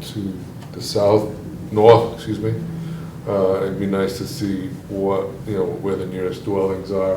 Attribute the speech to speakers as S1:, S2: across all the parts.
S1: to the south, north, excuse me. Uh, It'd be nice to see what, you know, where the nearest dwellings are.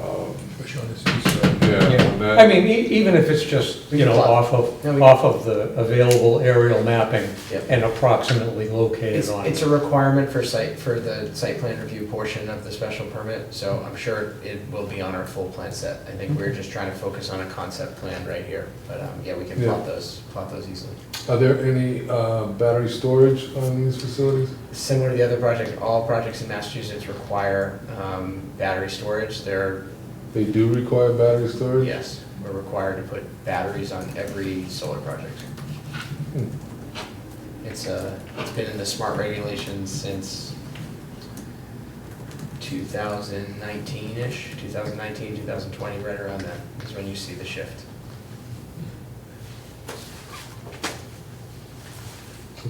S1: Um,
S2: Push on this east side.
S1: Yeah, and
S3: Yeah.
S1: that-
S3: I mean, e- even if it's just, you know, off
S4: Yeah,
S3: of,
S4: we-
S3: off of the available aerial mapping
S4: Yep.
S3: and approximately located
S4: It's,
S3: on.
S4: it's
S3: it.
S4: a requirement for site, for the site plan review portion of the special permit, so I'm sure it will be on our full plan set. I think we're just trying to focus on a concept plan right here, but, um, yeah, we can
S1: Yeah.
S4: plot those, plot those easily.
S1: Are there any uh, battery storage on these facilities?
S4: Similar to the other project, all projects in Massachusetts require, um, battery storage. They're,
S1: They do require battery storage?
S4: yes, we're required to put batteries on every solar project.
S1: Hmm.
S4: It's, uh, it's been in the smart regulations since 2019-ish, 2019, 2020, right around that is when you see the shift.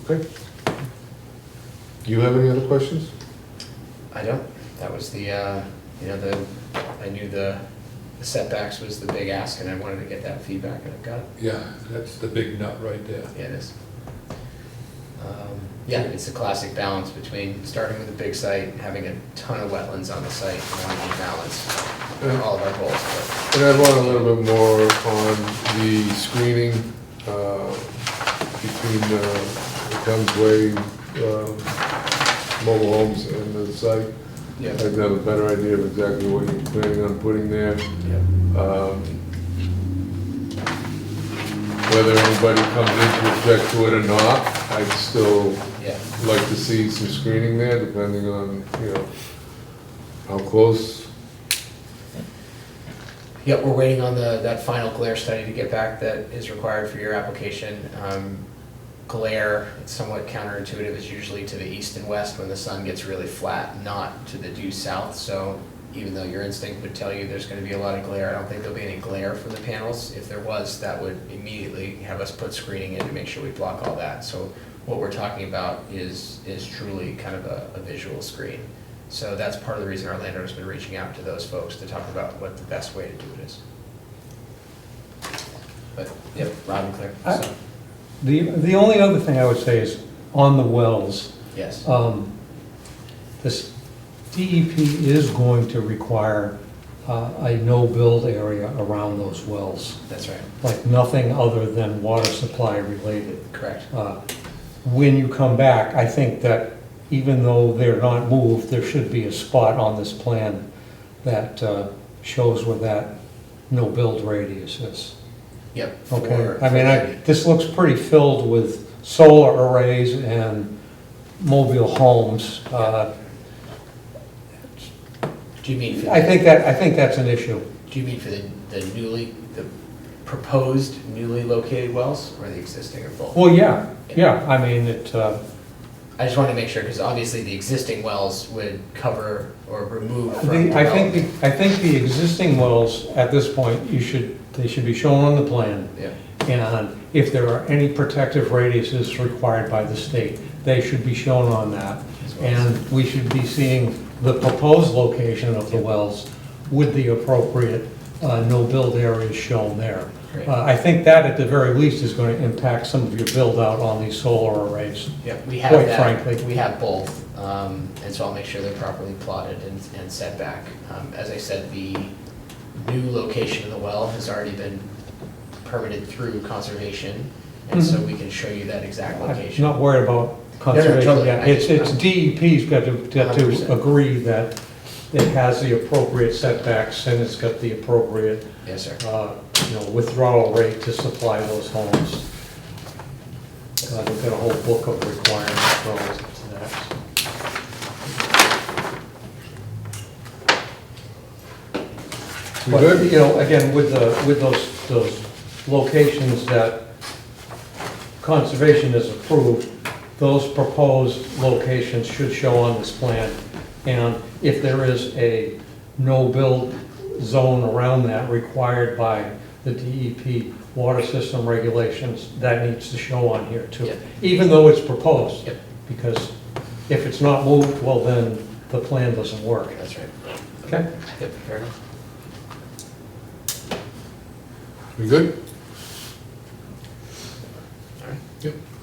S1: Okay. Do you have any other questions?
S4: I don't, that was the, uh, you know, the, I knew the the setbacks was the big ask, and I wanted to get that feedback, and I've got it.
S2: Yeah, that's the big nut right there.
S4: Yeah, it is. Um, Yeah, it's a classic balance between starting with a big site, having a ton of wetlands on the site, and wanting to balance all of our goals, but.
S1: And I want a little bit more on the screening uh, between uh, the Thames Way um, mobile homes and the site.
S4: Yeah.
S1: I'd have a better idea of exactly what you're planning on putting there. Um, Whether anybody comes in to object to it or not, I'd still
S4: Yeah,
S1: like to see some screening there, depending on, you know, how close.
S4: Yep, we're waiting on the, that final glare study to get back that is required for your application. Um, Glare, it's somewhat counterintuitive, is usually to the east and west when the sun gets really flat, not to the due south. So even though your instinct would tell you there's gonna be a lot of glare, I don't think there'll be any glare from the panels. If there was, that would immediately have us put screening in to make sure we block all that. So what we're talking about is, is truly kind of a, a visual screen. So that's part of the reason our landowner's been reaching out to those folks to talk about what the best way to do it is. But, yep, loud and clear,
S3: I-
S4: so,
S3: The, the only other thing I would say is on the wells,
S4: yes,
S3: um, this DEP is going to require uh, a no-build area around those wells,
S4: that's right,
S3: like nothing other than water supply related.
S4: correct.
S3: Uh, When you come back, I think that even though they're not moved, there should be a spot on this plan that uh, shows where that no-build radius is.
S4: Yep.
S3: Okay,
S4: for-
S3: I mean, I, this looks pretty filled with solar arrays and mobile homes. Uh,
S4: Do you mean for?
S3: I
S4: the-
S3: think that, I think that's an issue.
S4: Do you mean for the, the newly, the proposed newly located wells or the existing or both?
S3: Well, yeah, yeah, I mean, it, uh,
S4: I just wanted to make sure, because obviously the existing wells would cover or remove from
S3: the- I think,
S4: development.
S3: the- I think the existing wells, at this point, you should, they should be shown on the plan.
S4: Yeah,
S3: And if there are any protective radiuses required by the state, they should be shown on that.
S4: As well as-
S3: And we should be seeing the proposed location of the wells with the appropriate uh, no-build areas shown there.
S4: Great.
S3: Uh, I think that, at the very least, is going to impact some of your build-out on these solar arrays.
S4: yeah, we have
S3: Quite
S4: that,
S3: frankly.
S4: we have both, um, and so I'll make sure they're properly plotted and, and set back. Um, as I said, the new location of the well has already been permitted through conservation, and so
S3: Mm-hmm.
S4: we can show you that exact
S3: I'm
S4: location.
S3: not worried about
S4: totally.
S3: conservation yet.
S4: I
S3: It's,
S4: just-
S3: it's DEP's got to, got to
S4: 100%.
S3: agree that it has the appropriate setbacks and it's got the appropriate
S4: Yes, sir.
S3: uh, you know, withdrawal rate to supply those homes. Uh, We've got a whole book of requirements relative to that.
S1: We
S3: But,
S1: good?
S3: you know, again, with the, with those, those locations that conservation has approved, those proposed locations should show on this plan. And if there is a no-build zone around that required by the DEP water system regulations, that needs to show on here
S4: Yeah.
S3: too, even though it's proposed.
S4: Yep.
S3: Because if it's not moved, well, then the plan doesn't work.
S4: That's right.
S3: Okay?
S4: Yep, fair enough.
S1: We good?
S4: All right.
S1: Yep.